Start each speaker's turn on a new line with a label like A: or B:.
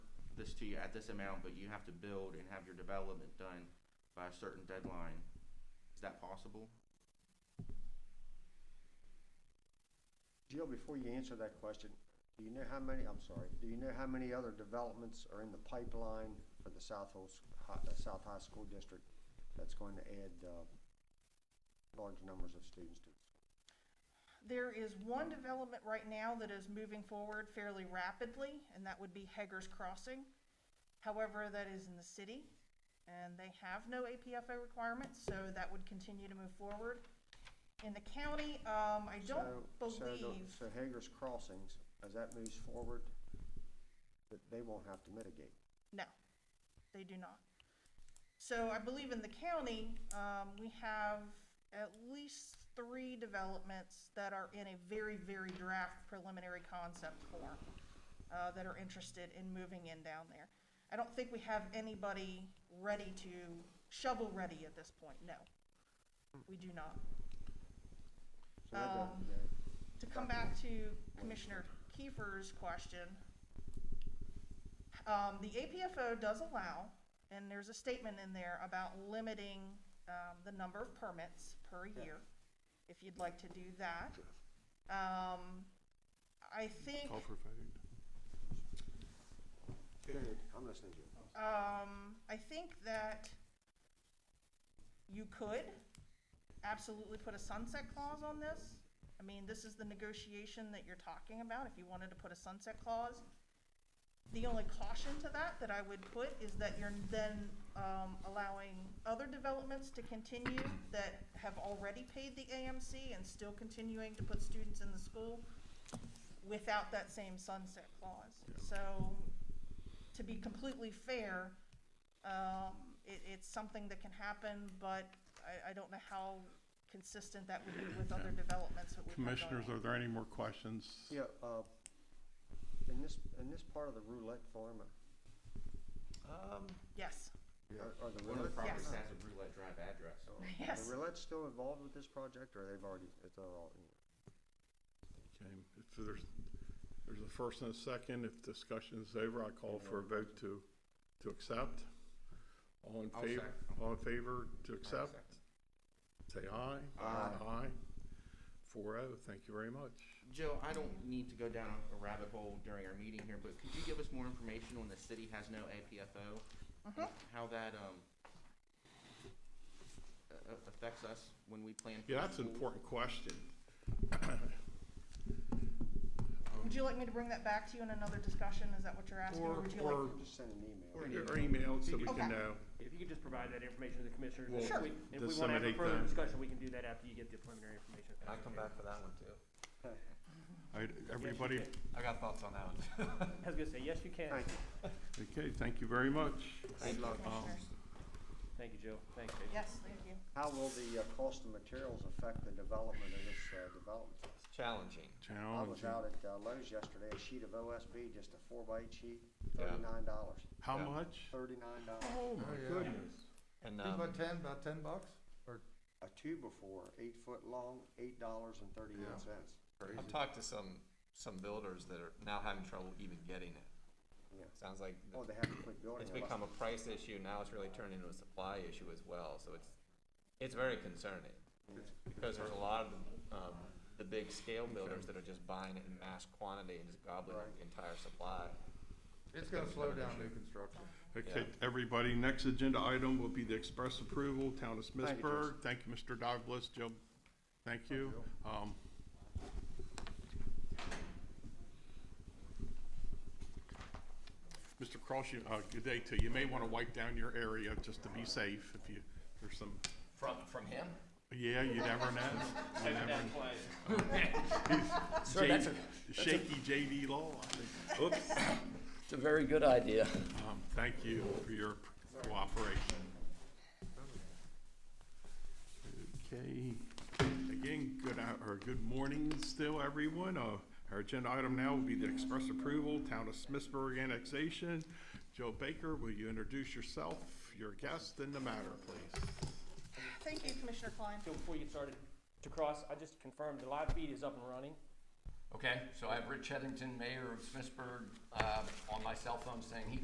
A: to you at this amount, but you have to build and have your development done by a certain deadline. Is that possible?
B: Jill, before you answer that question, do you know how many, I'm sorry, do you know how many other developments are in the pipeline for the South High, South High School District that's going to add, uh, large numbers of students to?
C: There is one development right now that is moving forward fairly rapidly, and that would be Heggers Crossing. However, that is in the city, and they have no APFO requirements, so that would continue to move forward. In the county, um, I don't
B: So- so the-
C: believe,
B: So Hager's Crossings, as that moves forward, that they won't have to mitigate.
C: no, they do not. So I believe in the county, um, we have at least three developments that are in a very, very draft preliminary concept form. uh, that are interested in moving in down there. I don't think we have anybody ready to, shovel-ready at this point, no. We do not.
B: So that doesn't-
C: Um,
B: that-
C: To come back to Commissioner Kiefer's question, um, the APFO does allow, and there's a statement in there about limiting, um, the number of permits per year, if you'd like to do that. Um, I think.
D: Call for vote.
B: go ahead, I'm listening to you.
C: Um, I think that you could absolutely put a sunset clause on this. I mean, this is the negotiation that you're talking about, if you wanted to put a sunset clause. The only caution to that that I would put is that you're then, um, allowing other developments to continue that have already paid the AMC and still continuing to put students in the school without that same sunset clause. So to be completely fair, um, it, it's something that can happen, but I, I don't know how consistent that would be with other developments that we have going
D: Commissioners,
C: on.
D: are there any more questions?
B: Yeah, uh, in this, in this part of the roulette uh, farm,
A: Um.
C: Yes,
B: are, are the
A: One of the
B: roulette, uh,
A: properties
C: Yes.
A: has a roulette drive address.
B: are
C: yes.
B: the roulette still involved with this project, or they've already, it's all,
D: Okay, if there's, there's a first and a second, if discussion is over, I call for a vote to, to accept. All in
A: I'll
D: favor,
A: second.
D: all in favor to accept,
A: second.
D: say aye.
A: Aye.
D: Aye. Four oh, thank you very much.
A: Jill, I don't need to go down a rabbit hole during our meeting here, but could you give us more information on the city has no APFO? and
E: Mm-hmm.
A: How that, um, a- a- affects us when we plan. for
D: Yeah, that's an
A: schools?
D: important question.
C: Would you like me to bring that back to you in another discussion? Is that what you're asking?
D: Or,
C: would you like-
D: or,
B: just send an email.
A: Or-
D: or email so we
C: Okay.
D: can know.
F: If you could just provide that information to the commissioners, and
D: We'll
F: if
C: Sure.
F: we, if we wanna have a
D: disseminate
F: further
D: that.
F: discussion, we can do that after you get the preliminary information.
G: Can I come back for that one too?
D: All right, everybody,
G: I got thoughts on that one.
F: I was gonna say, yes, you can.
B: Thank you.
D: okay, thank you very much.
C: Thank you,
A: Good luck.
C: commissioners.
F: Thank you, Jill. Thanks, Jason.
C: Yes, thank you.
B: How will the uh, cost of materials affect the development of this uh, development?
G: It's challenging.
B: I was
D: Challenging.
B: out at uh, Lowe's yesterday, a sheet of OSB, just a four by eight sheet,
G: Yeah.
B: thirty-nine dollars,
D: How
G: Yeah.
D: much?
B: thirty-nine dollars.
D: Oh, my goodness.
G: And,
E: Think
G: um,
E: about ten, about ten bucks? Or
B: A two before, eight foot long, eight dollars and thirty-nine cents.
G: I've talked to some, some builders that are now having trouble even getting it.
B: Yeah.
G: Sounds like
B: Oh, they have to quit building.
G: it's
B: a lot.
G: become a price issue, now it's really turned into a supply issue as well, so it's, it's very concerning. Because there's a lot of, um, the big scale builders that are just buying it in mass quantity and just gobbling up the entire supply.
E: it's gonna slow down new construction.
D: Okay, everybody, next agenda item will be the express approval, Town of
B: you,
D: Smithsburg. Thank you, Mr. Douglas, Joe, thank you. Um, Mr. Cross, you, uh, good day to you. You may want to wipe down your area just to be safe if you, there's some,
G: From, from him?
D: yeah, you never know. You never know.
H: Sir, that's a,
D: J- Shaky JV law, I think.
H: it's a very good idea.
D: Um, Thank you for your cooperation.
G: Oh,
D: Okay, again, good, hou- or good morning still, everyone. Uh, Our agenda item now will be the express approval, Town of Smithsburg annexation. Joe Baker, will you introduce yourself, your guest, and the matter, please?
C: Thank you, Commissioner Klein.
F: So before you get started, to cross, I just confirmed the live feed is up and running.
H: Okay, so I have Rich Headington, mayor of Smithsburg, uh, on my cell phone saying he